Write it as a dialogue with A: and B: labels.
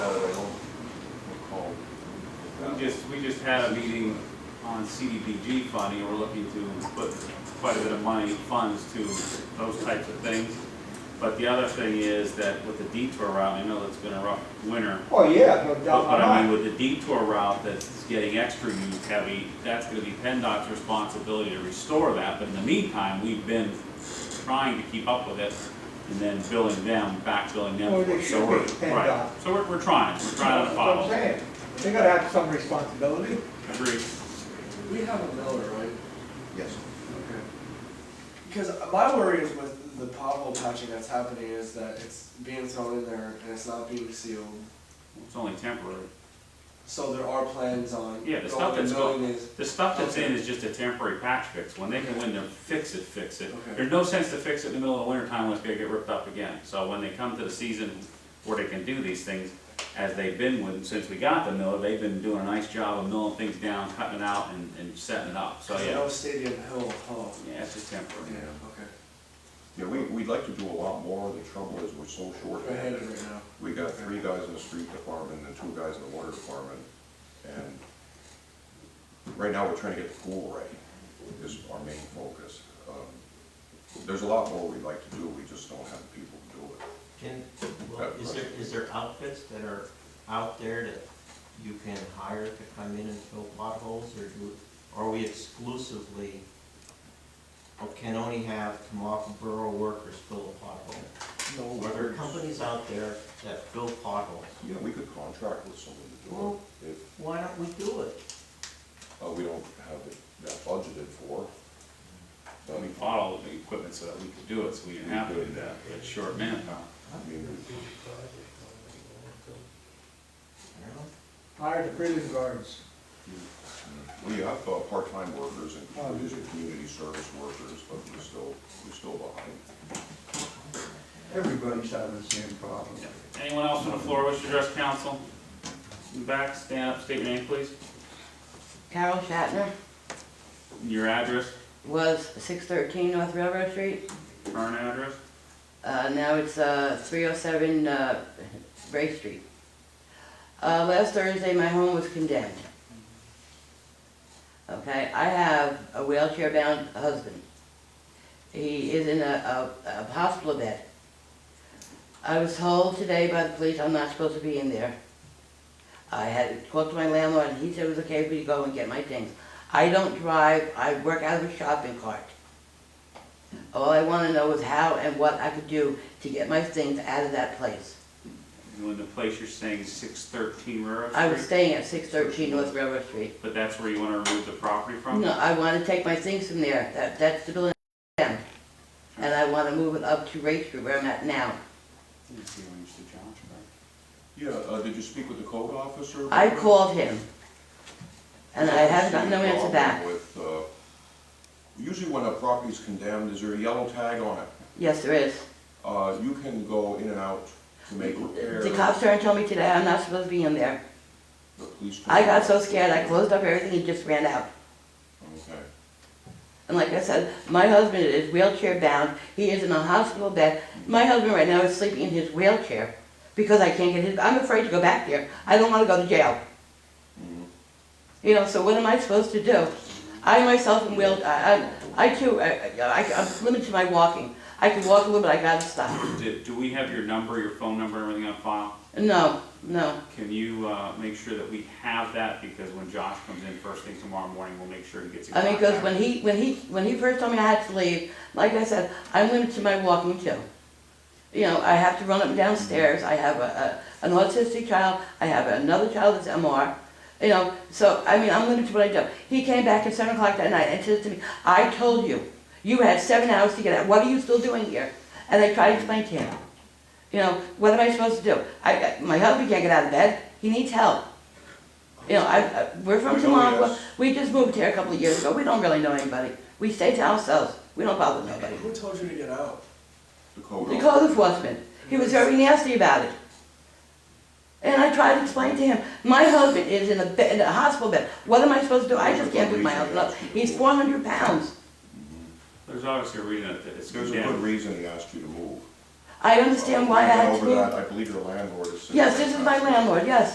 A: just, we just had a meeting on CDBG funding, we're looking to put quite a bit of money, funds to those types of things. But the other thing is that with the detour route, I know it's been a rough winter,
B: Oh, yeah, no doubt
A: but but I mean,
B: about it.
A: with the detour route that's getting extra use heavy, that's gonna be PennDOT's responsibility to restore that, but in the meantime, we've been trying to keep up with it, and then billing them, back billing them.
B: Well,
A: for
B: they
A: it.
B: should
A: So we're-
B: be PennDOT.
A: Right, so we're, we're trying, we're trying to
B: That's what I'm
A: follow,
B: saying. They gotta have some responsibility.
A: agree.
C: We have a miller, right?
D: Yes.
C: Okay. Because my worry is with the pothole patching that's happening is that it's being thrown in there and it's not being sealed.
A: It's only temporary.
C: So there are plans on.
A: Yeah, the stuff
C: going and
A: that's go-
C: milling these.
A: The stuff that's in is just a temporary patch fix. When they go in there, fix it, fix it.
C: Okay.
A: There's no sense to fix it in the middle of the winter time when it's gonna get ripped up again. So when they come to the season where they can do these things, as they've been with, since we got the miller, they've been doing a nice job of milling things down, cutting it out and, and setting it up. So,
C: Because I
A: Oh, yeah,
C: know Stadium Hill, oh,
A: yeah, it's just
C: yeah,
A: temporary.
C: okay.
D: Yeah, we, we'd like to do a lot more, the trouble is we're so short.
C: We're headed right now.
D: We got three guys in the street department and two guys in the water department, and right now we're trying to get the pool ready, is our main focus. Um, There's a lot more we'd like to do, we just don't have the people to do it.
E: Can, well, is there, is there outfits that are out there that you can hire to come in and fill potholes, or do, are we exclusively, or can only have Tamaka Borough workers fill a pothole?
D: No,
E: Are there companies out there that fill potholes?
D: Yeah, we could contract with someone to do it, if,
E: Why don't we do it?
D: uh, we don't have it that budgeted for.
A: So we
D: Um,
A: bought all of the equipment so that we could do it, so we didn't have to do that. It's short manpower.
D: I mean,
E: I don't know.
B: Hire the prison guards.
D: We have uh, part-time workers and we use community service workers, but we're still, we're still behind.
F: Everybody's having the same problem.
A: Anyone else on the floor wish to address council? In the Back, stand up, state your name, please.
G: Carol Shatner
A: Your address,
G: was six thirteen North Railroad Street.
A: current address.
G: Uh, now it's, uh, three oh seven, uh, Ray Street. Uh, last Thursday, my home was condemned. Okay, I have a wheelchair-bound husband. He is in a, a, a hospital bed. I was told today by the police I'm not supposed to be in there. I had talked to my landlord, and he said it was okay for you to go and get my things. I don't drive, I work out of a shopping cart. All I wanna know is how and what I could do to get my things out of that place.
A: You in the place you're saying six thirteen Railroad Street?
G: I was staying at six thirteen North Railroad Street.
A: But that's where you want to remove the property from?
G: No, I wanna take my things from there, that, that's the building down. And I wanna move it up to Ray Street where I'm at now.
A: You see when you used to challenge, right?
D: Yeah, uh, did you speak with the code officer?
G: I called him. And I have got no
D: Usually a
G: answer
D: problem
G: back.
D: With, uh, usually when a property's condemned, is there a yellow tag on it?
G: Yes, there is.
D: Uh, you can go in and out to make repairs.
G: The cops turned and told me today I'm not supposed to be in there.
D: The police.
G: I got so scared, I closed up everything and just ran out.
D: Okay,
G: And like I said, my husband is wheelchair bound. He is in a hospital bed. My husband right now is sleeping in his wheelchair because I can't get his. I'm afraid to go back there. I don't want to go to jail.
D: Mhm.
G: You know, so what am I supposed to do? I myself am wheel. I, I, I too. I, I, I'm limited to my walking. I can walk a little, but I gotta stop.
A: Do, do we have your number, your phone number, and everything on file?
G: No, no.
A: Can you, uh, make sure that we have that, because when Josh comes in first thing tomorrow morning, we'll make sure he gets a
G: I
A: contact.
G: mean, because when he when he when he first told me I had to leave, like I said, I'm limited to my walking too. You know, I have to run up and down stairs. I have a, a an autistic child. I have another child that's MR. You know, so I mean, I'm limited to what I do. He came back at seven o'clock that night and says to me, "I told you, you had seven hours to get out. What are you still doing here?" And I tried to explain to him, you know, what am I supposed to do? I my husband can't get out of bed. He needs help. You know, I, I we're
D: I
G: from
D: know,
G: Tamaqua.
D: yes.
G: We just moved here a couple of years ago. We don't really know anybody. We stay to ourselves. We don't bother nobody.
C: Who told you to get out?
D: the code.
G: The
D: officer.
G: code enforcement, he was very nasty about it. And I tried to explain to him, my husband is in a bed, in a hospital bed. What am I supposed to do? I just can't pick my husband up. He's four hundred pounds.
A: There's obviously a reason that it's
D: There's a good
A: condemned.
D: reason he asked you to move.
G: I understand why I
D: Uh,
G: had
D: went
G: to
D: over that.
G: move.
D: I believe your landlord is.
G: Yes, this is my landlord, yes.